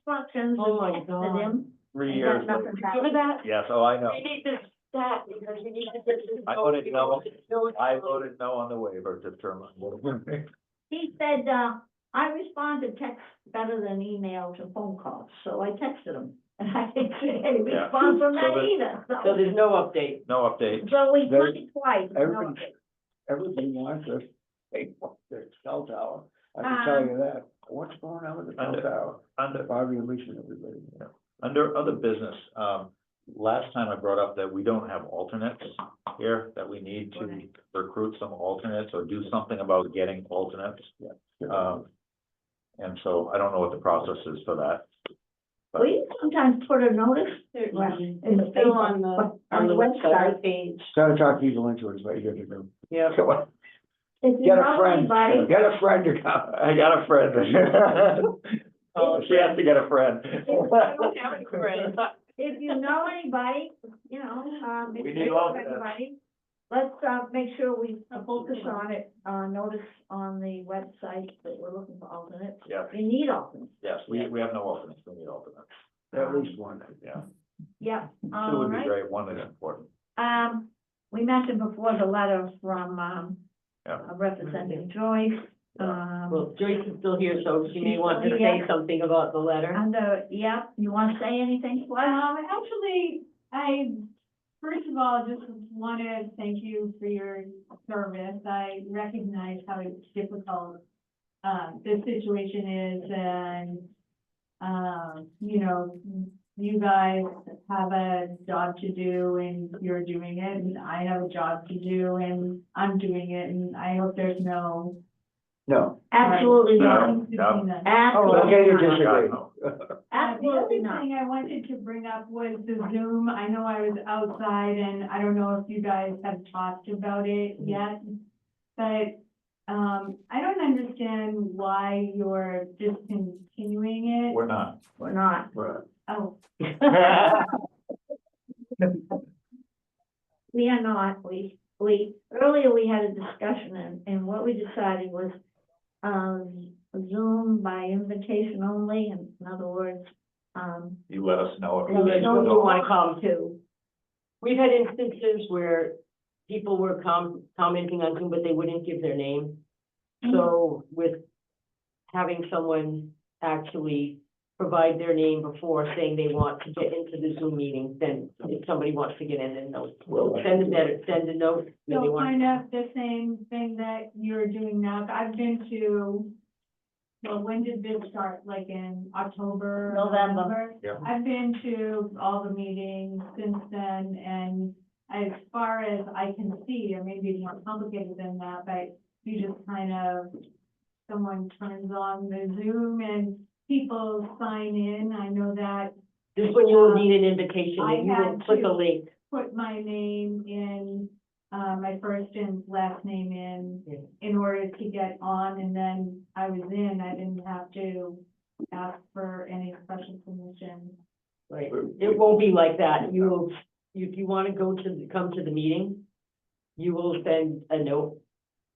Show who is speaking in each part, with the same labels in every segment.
Speaker 1: instructions.
Speaker 2: Oh my
Speaker 1: and texted
Speaker 2: God.
Speaker 1: him,
Speaker 3: three
Speaker 1: and
Speaker 3: years
Speaker 1: got
Speaker 3: later.
Speaker 1: nothing back. Remember that?
Speaker 3: Yes, oh, I know.
Speaker 1: We need this back because we need to get this.
Speaker 3: I
Speaker 1: vote
Speaker 3: voted no.
Speaker 1: because
Speaker 3: I voted no on the waiver to determine. what-
Speaker 1: He said, uh, I respond to texts better than emails and phone calls, so I texted him. And I didn't get any
Speaker 3: Yeah.
Speaker 1: response from
Speaker 3: So
Speaker 1: that
Speaker 3: the-
Speaker 1: either,
Speaker 2: So
Speaker 1: so.
Speaker 2: there's no update.
Speaker 3: No update.
Speaker 1: So we
Speaker 4: there-
Speaker 1: put it twice. no
Speaker 4: everything-
Speaker 1: update.
Speaker 4: Everything wants us, they want their cell tower, I can tell
Speaker 1: Um,
Speaker 4: you that, what's going on with the
Speaker 3: Under-
Speaker 4: cell tower,
Speaker 3: Under,
Speaker 4: Bobby and Lisa and everybody.
Speaker 3: under other business, um, last time I brought up that we don't have alternates here, that we need to recruit some alternates or do something about getting alternates. Um, and so I don't know what the process is for that. but-
Speaker 1: We sometimes put a notice well, in the
Speaker 2: It's
Speaker 1: paper,
Speaker 2: still on the,
Speaker 1: but
Speaker 2: on the website page.
Speaker 4: Gotta talk people into it, is what you gotta do.
Speaker 2: Yeah.
Speaker 1: If you
Speaker 4: Get a
Speaker 1: know
Speaker 4: friend.
Speaker 1: anybody,
Speaker 4: Get a friend to come.
Speaker 3: I got a friend. Oh, she has to get a friend.
Speaker 1: if you know anybody, you know, um, if
Speaker 3: We
Speaker 1: you
Speaker 3: need
Speaker 1: know
Speaker 3: all of that.
Speaker 1: anybody, let's, uh, make sure we focus on it, uh, notice on the website that we're looking for alternates.
Speaker 3: Yeah,
Speaker 1: We need alternates,
Speaker 3: yes, we, we have no alternates, we need alternates,
Speaker 4: At least one.
Speaker 3: yeah.
Speaker 1: yeah,
Speaker 3: Two
Speaker 1: all
Speaker 3: would be
Speaker 1: right.
Speaker 3: great, one is important.
Speaker 1: Um, we mentioned before the letter from, um,
Speaker 3: Yeah.
Speaker 1: uh, Representative Joyce, um,
Speaker 2: Well, Joyce is still here, so she may want to say
Speaker 1: Yeah.
Speaker 2: something about the letter.
Speaker 1: under, yeah, you wanna say anything?
Speaker 5: Um, actually, I, first of all, just want to thank you for your service. I recognize how difficult, um, this situation is and, um, you know, you guys have a job to do and you're doing it and I have a job to do and I'm doing it and I hope there's no.
Speaker 4: No,
Speaker 1: Absolutely not, Oh,
Speaker 3: No, no.
Speaker 4: okay,
Speaker 1: absolutely
Speaker 4: you
Speaker 1: not,
Speaker 4: just-
Speaker 3: God, no.
Speaker 5: Uh, The
Speaker 1: absolutely
Speaker 5: other
Speaker 1: not.
Speaker 5: thing I wanted to bring up was the Zoom. I know I was outside and I don't know if you guys have talked about it yet. But, um, I don't understand why you're discontinuing it.
Speaker 3: We're not.
Speaker 1: We're not.
Speaker 4: right.
Speaker 5: Oh,
Speaker 1: We are not, we, we, earlier we had a discussion and, and what we decided was, um, Zoom by invitation only, in in other words, um,
Speaker 3: You let us know. if
Speaker 1: Let us
Speaker 3: there's
Speaker 1: know if
Speaker 3: no-
Speaker 1: you
Speaker 2: wanna come.
Speaker 1: two.
Speaker 2: We've had instances where people were com- commenting on Zoom, but they wouldn't give their name.
Speaker 5: Mm-hmm.
Speaker 2: So with having someone actually provide their name before saying they want to get into the Zoom meeting, then if somebody wants to get in, then they'll
Speaker 4: Well,
Speaker 2: send a letter, send a note. then they
Speaker 5: so
Speaker 2: want-
Speaker 5: kind of the same thing that you're doing now. I've been to, well, when did this start? Like in October?
Speaker 1: November.
Speaker 3: Yeah.
Speaker 5: I've been to all the meetings since then, and as far as I can see, or maybe it's more complicated than that, but you just kind of, someone turns on the Zoom and people sign in, I know that,
Speaker 2: This is when you will need an invitation,
Speaker 5: uh, I
Speaker 2: and you will
Speaker 5: had
Speaker 2: click
Speaker 5: to-
Speaker 2: a link.
Speaker 5: put my name in, uh, my first and last name
Speaker 2: Yeah.
Speaker 5: in, in order to get on, and then I was in, I didn't have to ask for any special permission.
Speaker 2: Right, it won't be like that, you will, if you wanna go to, come to the meeting, you will send a note.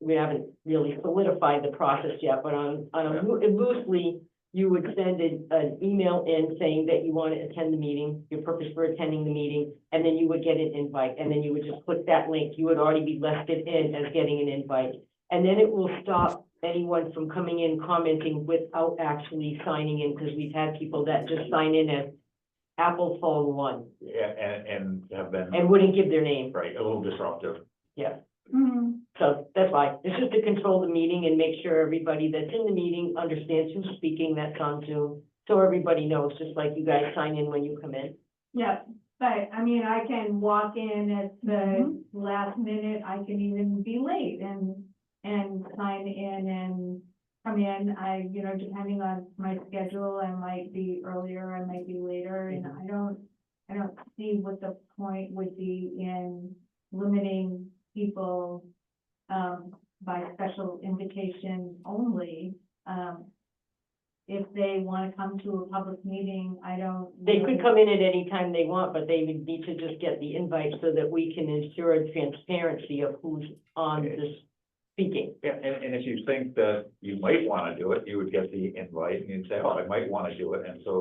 Speaker 2: We haven't really solidified the process yet, but on, on a loo- loosely, you would send an, an email in saying that you wanna attend the meeting, your purpose for attending the meeting, and then you would get an invite, and then you would just click that link, you would already be listed in as getting an invite. And then it will stop anyone from coming in commenting without actually signing in, because we've had people that just sign in as Apple phone one
Speaker 3: Yeah, and, and have been,
Speaker 2: and wouldn't give their name.
Speaker 3: right, a little disruptive.
Speaker 2: So that's why, it's just to control the meeting and make sure everybody that's in the meeting understands who's speaking that's on Zoom. So everybody knows, just like you guys sign in when you come in.
Speaker 5: Yep, but I mean, I can walk in at
Speaker 2: Mm-hmm.
Speaker 5: the last minute, I can even be late and, and sign in and come in. I, you know, depending on my schedule, I might be earlier, I might be later, and
Speaker 2: Mm-hmm.
Speaker 5: I don't, I don't see what the point would be in limiting people, um, by special invitation only. Um, if they want to come to a public meeting, I don't.
Speaker 2: They could
Speaker 5: really-
Speaker 2: come in at any time they want, but they would need to just get the invite so that we can ensure transparency of who's on this speaking.
Speaker 3: Yeah, and, and if you think that you might wanna do it, you would get the invite and you'd say, oh, I might wanna do it, and so